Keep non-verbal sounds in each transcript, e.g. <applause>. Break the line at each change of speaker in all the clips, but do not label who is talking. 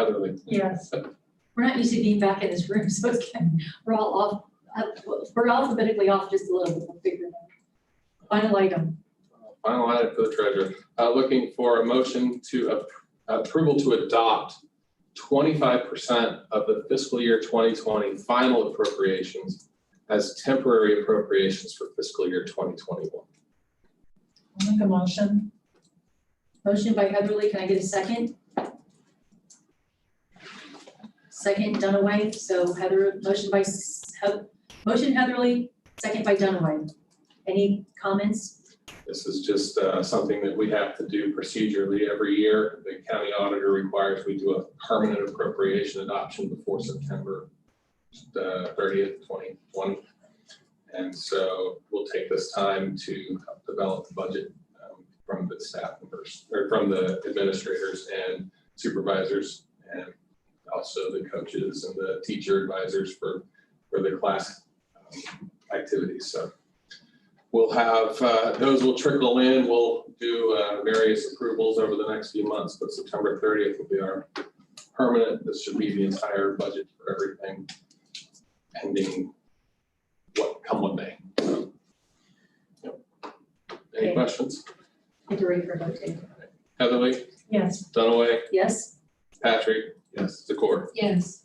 Heatherly.
Yes. We're not used to being back in this room, <laughs> so it's kind, we're all off, up- we're alphabetically off just a little bit, we'll figure it out. Final item,
Final item for the treasurer, uh, looking for a motion to ap- approval to adopt twenty-five percent of the fiscal year twenty twenty final appropriations as temporary appropriations for fiscal year twenty twenty-one.
I'll make a motion.
motion by Heatherly, can I get a second? Second Dunaway, so Heather, motion by, S- Heath- motion Heatherly, second by Dunaway. Any comments?
This is just uh, something that we have to do procedurally every year. The county auditor requires we do a permanent appropriation adoption before September uh, thirtieth, twenty twenty. And so we'll take this time to help develop the budget um, from the staff members, or from the administrators and supervisors, and also the coaches and the teacher advisors for, for the class um, activities. So We'll have, uh, those will trickle in. We'll do uh, various approvals over the next few months, but September 30th will be our permanent. This should be the entire budget for everything pending what come what may. So, yep. Any
Okay.
questions?
Get ready for a vote, Dave.
Heatherly,
Yes.
Dunaway,
Yes?
Patrick? Yes. Zakor?
Yes.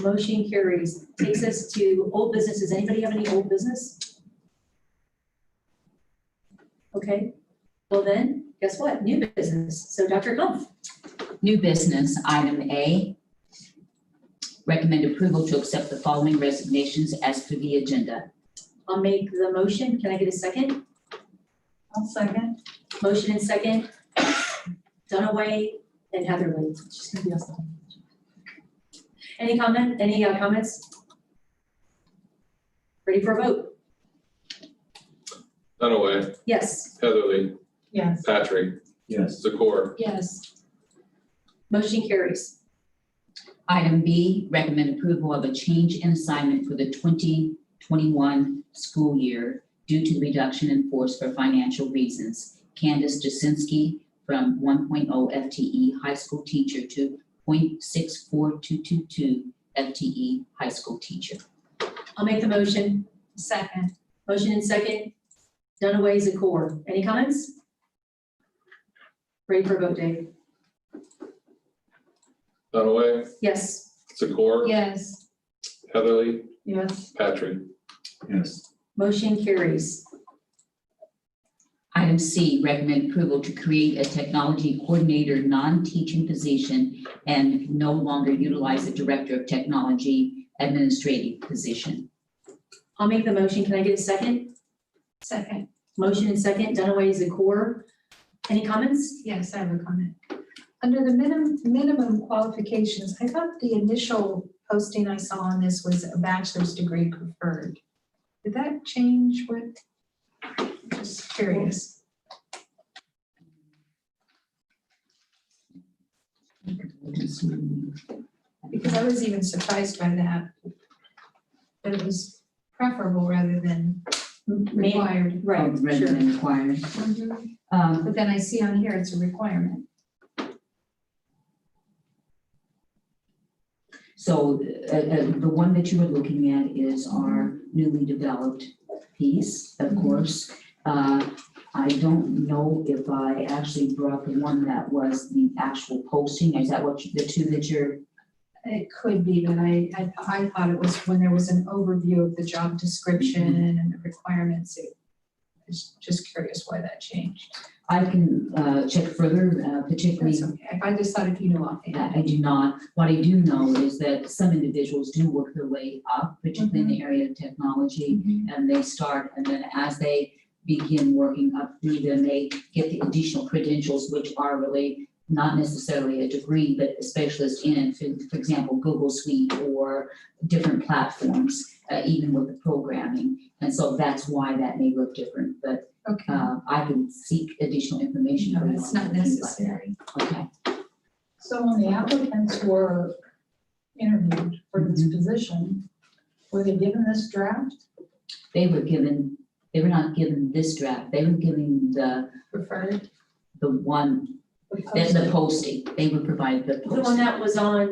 Motion carries, takes us to old business, does anybody have any old business? Okay, well then, guess what, new business, so Dr. Humph,
New business, item A. Recommend approval to accept the following resignations as per the agenda.
I'll make the motion, can I get a second?
I'll second.
Motion and second, Dunaway and Heatherly, she's gonna be awesome. Any comment, any uh, comments? Ready for a vote?
Dunaway,
Yes.
Heatherly,
Yes.
Patrick? Yes. Zakor?
Yes. Motion carries.
Item B, recommend approval of a change in assignment for the 2021 school year due to reduction in force for financial reasons. Candace Jasinski from 1.0 FTE E high school teacher to 0.64222 FTE E high school teacher.
I'll make the motion.
Second.
Motion and second. Dunaway, Zakor. Any comments? Ready for a vote, Dave?
Dunaway,
Yes.
Zakor?
Yes.
Heatherly,
Yes.
Patrick?
Yes,
Motion carries.
Item C, recommend approval to create a technology coordinator, non-teaching position, and no longer utilize the director of technology administrative position.
I'll make the motion. Can I get a second?
Second.
Motion and second. Dunaway, Zakor. Any comments?
Yes, I have a comment. Under the minimum, minimum qualifications, I thought the initial posting I saw on this was a bachelor's degree preferred. Did that change what? Just curious. Because I was even surprised by that. That it was preferable rather than
May-
required.
Right,
Rather
sure.
than required. Um,
But then I see on here it's a requirement.
So uh, uh, the one that you were looking at is our newly developed piece, of course. Uh, I don't know if I actually brought the one that was the actual posting. Is that what, you- the two that you're
It could be, but I, I, I thought it was when there was an overview of the job description
Mm-hmm.
and the requirements. It- I was just curious why that changed.
I can uh, check further, uh, particularly,
That's okay. I just thought if you knew offhand.
I I do not. What I do know is that some individuals do work their way up, particularly in the area of technology.
Mm-hmm.
and they start, and then as they begin working up through them, they get the additional credentials, which are really not necessarily a degree, but a specialist in, for for example, Google Suite or different platforms, uh, even with the programming. And so that's why that may look different, but
Okay,
uh, I can seek additional information.
no,
from
it's
you on
not
that, if you'd
necessary.
like. Okay,
So when the applicants were interviewed for this
Mm-hmm.
position, were they given this draft?
they were given, they were not given this draft, they were given the,
Preferred.
the one Then the posting, they would provide the
The one
posting.
that was on